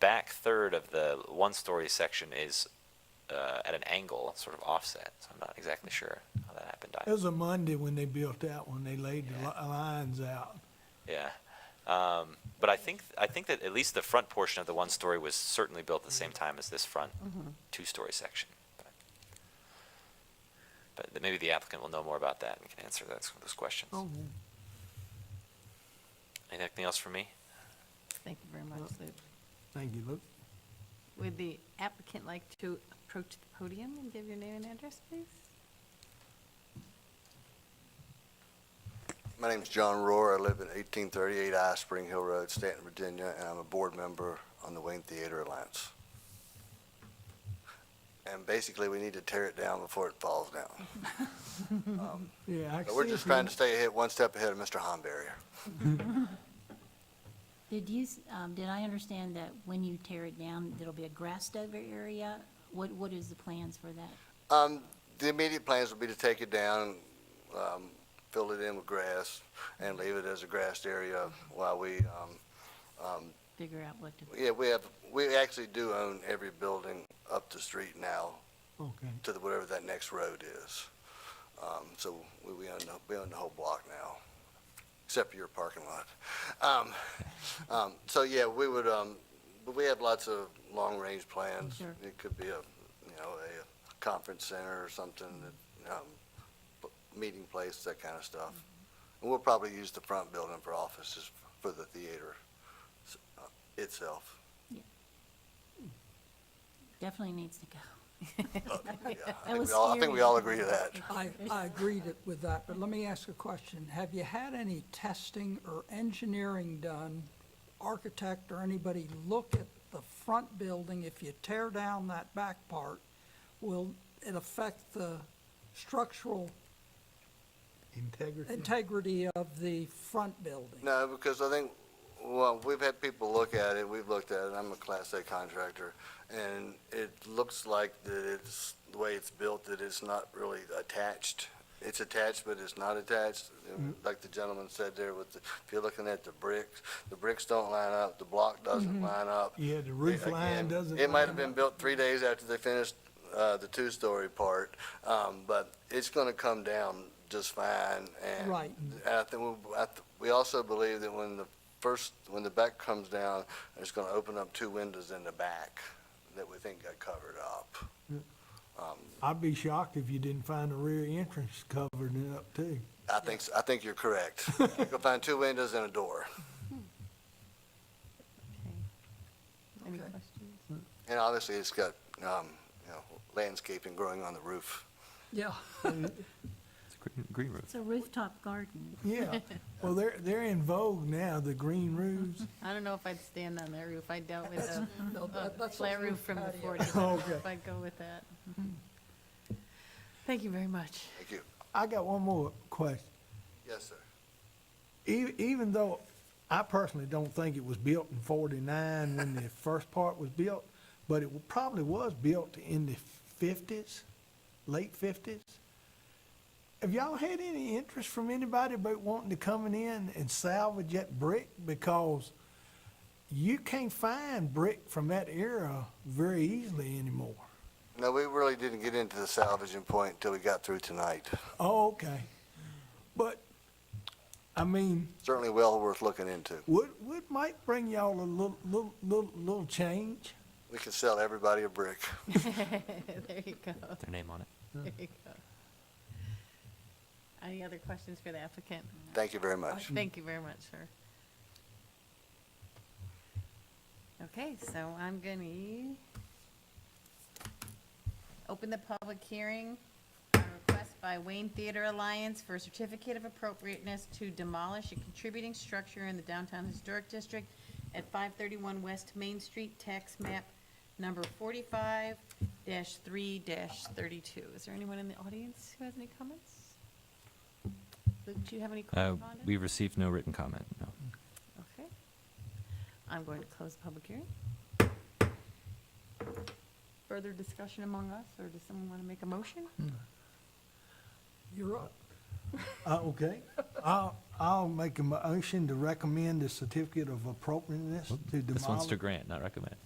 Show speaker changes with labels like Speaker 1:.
Speaker 1: back third of the one story section is uh, at an angle, sort of offset. So I'm not exactly sure how that happened.
Speaker 2: It
Speaker 1: either.
Speaker 2: was a Monday when they built that one, they laid the li- lines out.
Speaker 1: Yeah. Um, but I think I think that at least the front portion of the one story was certainly built at the
Speaker 2: Mm-hmm.
Speaker 1: same time as this front two story section. But, but th- maybe the applicant will know more about that and can answer those, those questions.
Speaker 2: Oh,
Speaker 1: Anything else for me?
Speaker 3: Thank you very much, Luke.
Speaker 2: Thank you, Luke.
Speaker 3: Would the applicant like to approach the podium and give your name and address, please?
Speaker 4: My name's John Rohr. I live at 1838 I Spring Hill Road, Stanton, Virginia, and I'm a board member on the Wayne Theater Alliance. And basically, we need to tear it down before it falls down.
Speaker 2: Yeah, I
Speaker 4: But we're
Speaker 2: see
Speaker 4: just
Speaker 2: it
Speaker 4: trying
Speaker 2: now.
Speaker 4: to stay ahead, one step ahead of Mr. Homberry.
Speaker 5: Did you, s- um, did I understand that when you tear it down, there'll be a grassed over area? What, what is the plans for that?
Speaker 4: Um, the immediate plans would be to take it down, um, fill it in with grass, and leave it as a grassed area while we, um, um,
Speaker 5: Figure out what to,
Speaker 4: yeah, we have, we actually do own every building up the street now
Speaker 2: Okay,
Speaker 4: to the, whatever that next road is. Um, so we, we own, the- we own the whole block now, except for your parking lot. Um, um, so yeah, we would, um, but we have lots of long-range plans.
Speaker 5: Sure.
Speaker 4: It could be a, you know, a conference center or something, that, um, p- meeting place, that kind of stuff.
Speaker 5: Mm-hmm.
Speaker 4: And we'll probably use the front building for offices for the theater s- uh, itself.
Speaker 5: definitely needs to go.
Speaker 4: Yeah, I think
Speaker 5: was
Speaker 4: we all- I think we
Speaker 5: scary.
Speaker 4: all agree to that.
Speaker 6: I, I agreed it- with that, but let me ask a question. Have you had any testing or engineering done, architect or anybody look at the front building? If you tear down that back part, will it affect the structural
Speaker 2: integrity.
Speaker 6: integrity of the front building?
Speaker 4: No, because I think, well, we've had people look at it, we've looked at it, I'm a Class A contractor, and it looks like that it's, the way it's built, that it's not really attached. It's attached, but it's not attached, like the gentleman said there with the, if you're looking at the bricks, the bricks don't line up, the block doesn't line up.
Speaker 2: Yeah, the roof line
Speaker 4: Again,
Speaker 2: doesn't.
Speaker 4: It might have
Speaker 2: line
Speaker 4: been
Speaker 2: up.
Speaker 4: built three days after they finished uh, the two-story part, um, but it's going to come down just fine. and-
Speaker 6: Right.
Speaker 4: And I think, we- I th- we also believe that when the first, when the back comes down, it's going to open up two windows in the back that we think got covered up.
Speaker 2: I'd be shocked if you didn't find the rear entrance covered it up too.
Speaker 4: I think, s- I think you're correct. You'll find two windows and a door.
Speaker 3: Okay. Any questions?
Speaker 4: And obviously, it's got, um, you know, landscaping growing on the roof.
Speaker 6: Yeah.
Speaker 7: It's a green, green roof.
Speaker 5: It's a rooftop garden.
Speaker 2: Yeah, well, they're, they're in vogue now, the green roofs.
Speaker 3: I don't know if I'd stand on that roof. I dealt with a
Speaker 6: No,
Speaker 3: a
Speaker 6: that- that's a
Speaker 3: flat
Speaker 6: roof
Speaker 3: roof from the
Speaker 6: patio.
Speaker 3: forties. I don't know
Speaker 2: Okay.
Speaker 3: if I'd go with that. Thank you very much.
Speaker 4: Thank you.
Speaker 2: I got one more question.
Speaker 4: Yes, sir.
Speaker 2: E- even though I personally don't think it was built in forty-nine when the first part was built, but it probably was built in the fifties, late fifties. Have y'all had any interest from anybody about wanting to coming in and salvage that brick? Because you can't find brick from that era very easily anymore.
Speaker 4: No, we really didn't get into the salvaging point until we got through tonight.
Speaker 2: Oh, okay. But, I mean,
Speaker 4: Certainly well worth looking into.
Speaker 2: would, would might bring y'all a little, little, little, little change.
Speaker 4: We could sell everybody a brick.
Speaker 3: There you go,
Speaker 7: Their name on it.
Speaker 3: there you go. Any other questions for the applicant?
Speaker 4: Thank you very much.
Speaker 3: Oh, Thank you very much, sir. Okay, so I'm gonna e open the public hearing. on a Request by Wayne Theater Alliance for a certificate of appropriateness to demolish a contributing structure in the downtown historic district at five thirty-one West Main Street, tax map number forty-five three thirty-two. Is there anyone in the audience who has any comments? Luke, do you have any
Speaker 7: Uh,
Speaker 3: correspondence?
Speaker 7: we received no written comment, no.
Speaker 3: Okay. I'm going to close the public hearing. Further discussion among us, or does someone want to make a motion?
Speaker 6: You're up.
Speaker 2: Uh, okay, I'll, I'll make a motion to recommend the certificate of appropriateness to demolish.
Speaker 1: This one's to grant, not recommend.